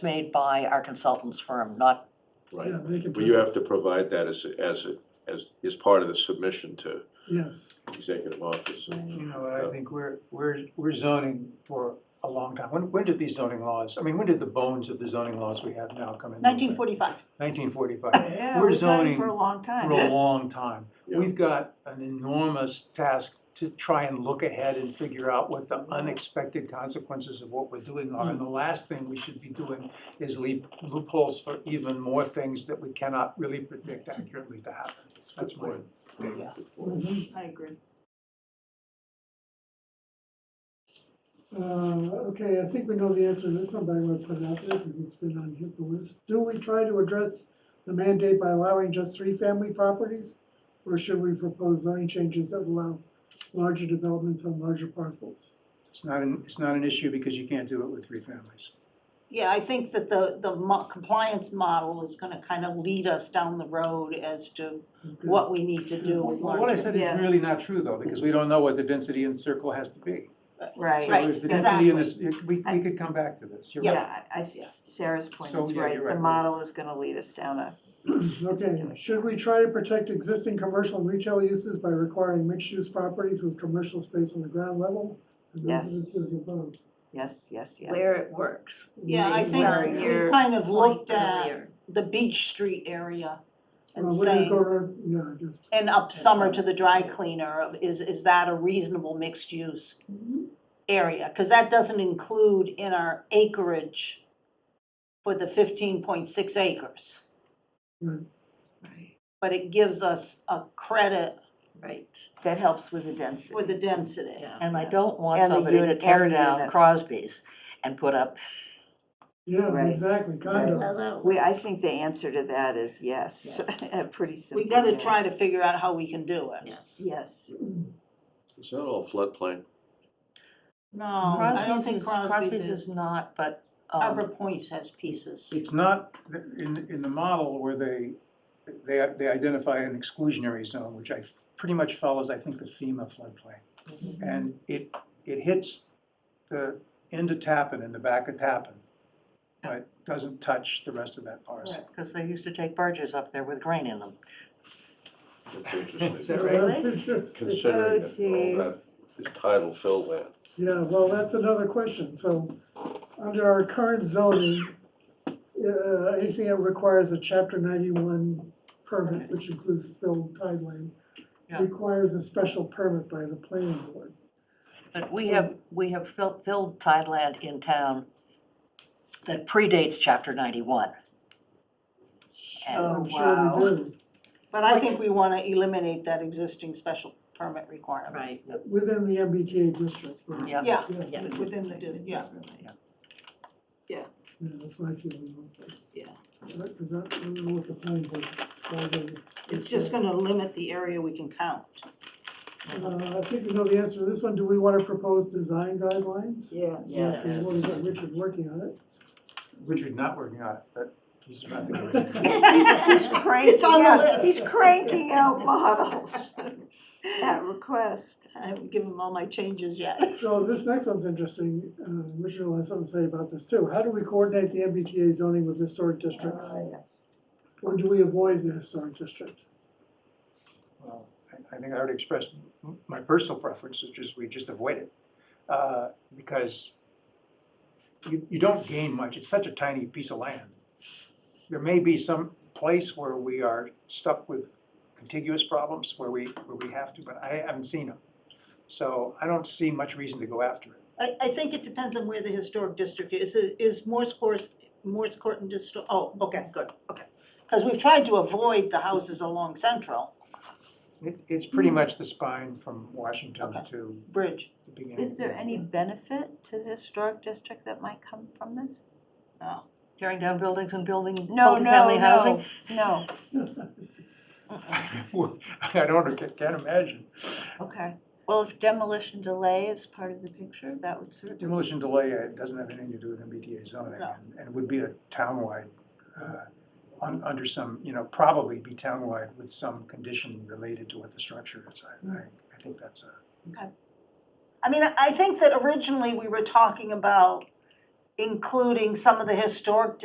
made by our consultants firm, not, Right, Yeah, they can. but you have to provide that as, as, as, as part of the submission to Yes, executive office. You know, I think we're, we're, we're zoning for a long time. When, when did these zoning laws, I mean, when did the bones of the zoning laws we have now come in? nineteen forty-five. Mm-hmm. Nineteen forty-five, Yeah, We're we've done it zoning for a long time. for a long time. Yeah. We've got an enormous task to try and look ahead and figure out what the unexpected consequences of what we're doing are. And the last thing we should be doing is leave loopholes for even more things that we cannot really predict accurately to happen. That's my point. take. Good point. I agree. uh, okay, I think we know the answer to this one, but I'm gonna put it out there because it's been on hit the list. Do we try to address the mandate by allowing just three family properties? Or should we propose zoning changes that allow larger developments on larger parcels? It's not an, it's not an issue because you can't do it with three families. Yeah, I think that the, the mo- compliance model is gonna kind of lead us down the road as to Okay. what we need to do with Well, What I larger, said is yes, really not true though, because we don't know what the density in the circle has to be. Right. So if the density exactly. in this, we, we could come back to this, you're right. Yeah, I, I- Sarah's point So, is yeah, right, you're the right. model is gonna lead us down a, Okay, should we try to protect existing commercial and retail uses by requiring mixed-use properties with commercial space on the ground level? and Yes. Residences above. yes, yes, yes. where it works. Yeah, I Based think on we your kind of point looked at earlier. the Beach Street area and Uh, what do you go saying, around, yeah, I guess. and up summer to the dry cleaner, of is, is that a reasonable mixed use area? Cause that doesn't include in our acreage for the fifteen point six acres, Right, but it gives us a credit Right. That helps with the density. for the density. Yeah. and I don't want And the somebody to unit- tear and the down units. Crosby's and put up Yeah, Right. exactly, condos. Although, We, I think the answer to that is yes, a pretty simple We gotta try to yes. figure out how we can do it. yes, Yes, Is that all floodplain? No, Um, I don't think Crosby's is, not, but, Arbor um, Point has pieces. It's not, in, in the model where they, they, they identify an exclusionary zone, which I, pretty much follows, I think, the FEMA floodplain. Mm-hmm. And it, it hits the end of Tappan and the back of Tappan, but doesn't touch the rest of that parcel. because they used to take barges up there with grain in them. That's interesting. Is that right? Well, that's interesting. Considering Oh, that all that is tidal fill land. Yeah, well, that's another question, so, under our current zoning, uh, anything that requires a chapter ninety-one permit, which includes filled tideline, Yeah. requires a special permit by the planning board. But we have, we have filled, filled tideland in town that predates chapter ninety-one. And, Oh, I'm sure we wow. do. But I think we wanna eliminate that existing special permit requirement. right, Within the MBTA district. right? yeah, Yeah, Yeah, yeah, within the, dis- yeah. yeah, that's my feeling also. Yeah. Because I I don't know what the planning board, why they- It's just gonna limit the area we can count. Uh, I think we know the answer to this one, do we wanna propose design guidelines? Yes. yes. We've already got Richard working on it. Richard not working on it, but he's about to go. He's cranking on the out, list. he's cranking out models at request. I haven't given them all my changes yet. So this next one's interesting, uh, Richard will have something to say about this too. How do we coordinate the MBTA zoning with historic districts? Uh, yes. Or do we avoid the historic district? Well, I- I think I already expressed m- my personal preference, which is we just avoid it. uh, Because you, you don't gain much, it's such a tiny piece of land. There may be some place where we are stuck with contiguous problems, where we, where we have to, but I haven't seen them. So I don't see much reason to go after it. I, I think it depends on where the historic district is. Is Morse Court, Morse Court and District, oh, okay, good, okay. Cause we've tried to avoid the houses along Central it. It's pretty much the spine from Washington Okay. to Bridge. the beginning. Is there any benefit to the historic district that might come from this? tearing down buildings and building No, no, multifamily housing. no, no, I don't, can't imagine. okay. Well, if demolition delay is part of the picture, that would certainly. Demolition delay uh, doesn't have anything to do with MBTA zoning, No. and- and would be a townwide, uh, un- under some, you know, probably be townwide with some condition related to what the structure is. I, I, I think that's a, I mean, I- I think that originally we were talking about including some of the historic